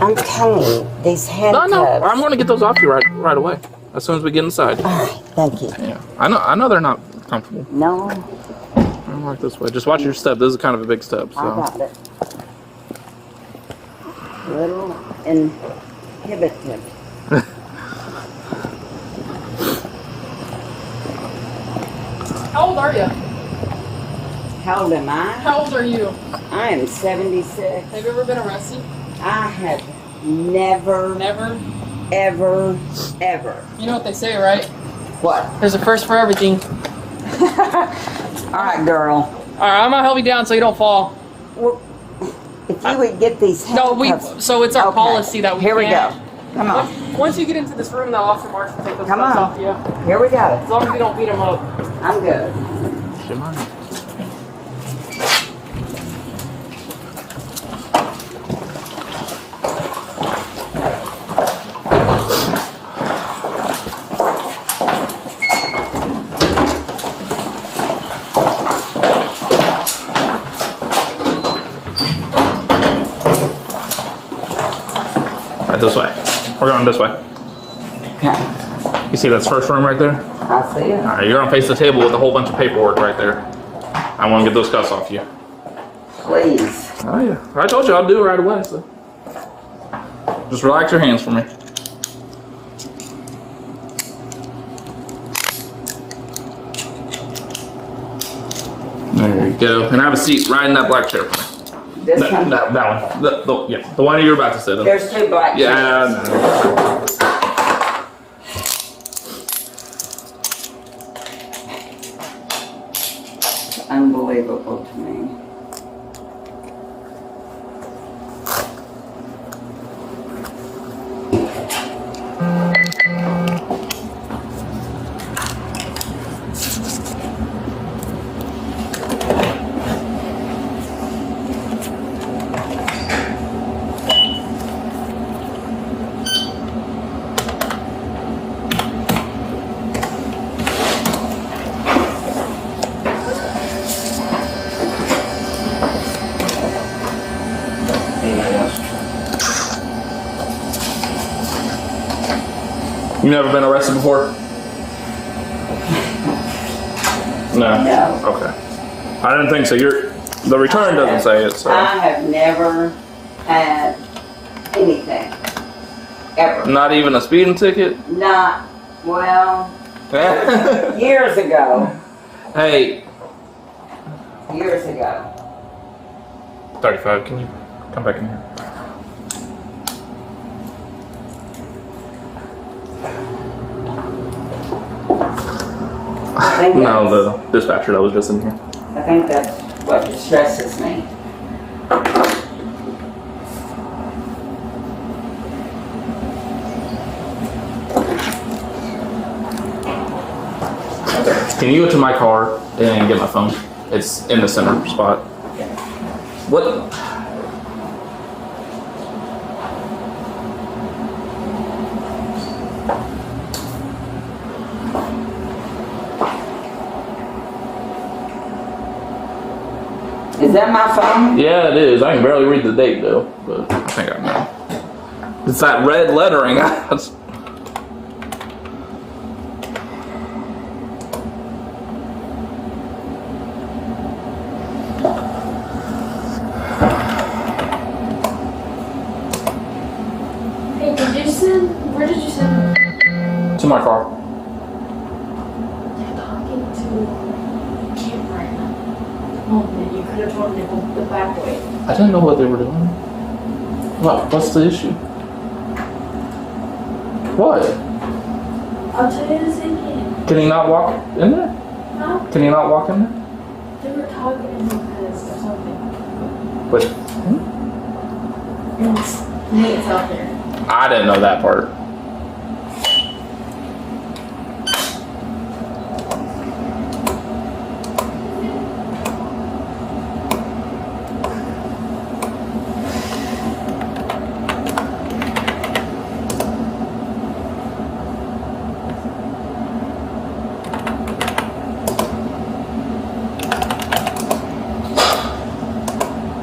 I'm telling you, these No, no, I'm handcuffs. going to get those off you right right away as soon as we get inside. Thank you. Yeah, I know. I know they're not comfortable. No, I'm like this way. Just watch your step. This is kind of a big step. I So got it. Little inhibited. How old are you? How old am I? How old are you? I am 76. Have you ever been arrested? I have never, Never. ever, ever. You know what they say, right? What? There's a first for everything. All right, girl. All right, I'm gonna help you down so you don't fall. Well, If you would get these No, we. handcuffs. So it's our Okay. policy that we. Here we can't- go. Come on. Once- Once you get into this room, that officer marks will take those Come cuffs on. off you. As Here we go. long as you don't beat him up. I'm good. Do you mind? Right this way. We're going this way. Okay. You see that's first room right there? I see it. All right, you're gonna face the table with a whole bunch of paperwork right there. I want to get those cuffs off you. Please. Oh yeah, I told you I'll do it right away. So just relax your hands for me. There you go. And have a seat right in that black chair. This That, one. that, that one. The, the, yeah, the one you're about to sit in. There's two black. Yeah. chairs. I know. Unbelievable to me. You never been arrested before? No. No. Okay. I didn't think so. You're the return doesn't say it, so I have never had anything. Ever. not even a speeding ticket. Not, well, years ago. hey, Years ago. thirty-five. Can you come back in here? I think No, that's- the dispatcher that was just in here. I think that's what distresses me. Can you go to my car and get my phone? It's in the center spot. What? Is that my phone? Yeah, it is. I can barely read the date though, but I think I know. It's that red lettering. That's- Hey, did you send? Where did you send? to my car. They're talking to the camera right now. Oh man, you could have told them to go the back way. I didn't know what they were doing. What? What's the issue? What? I'll tell you the same thing. Can he not walk in there? No, Can he not walk in there? they were talking because or something. But And it's- Nate's out there. I didn't know that part.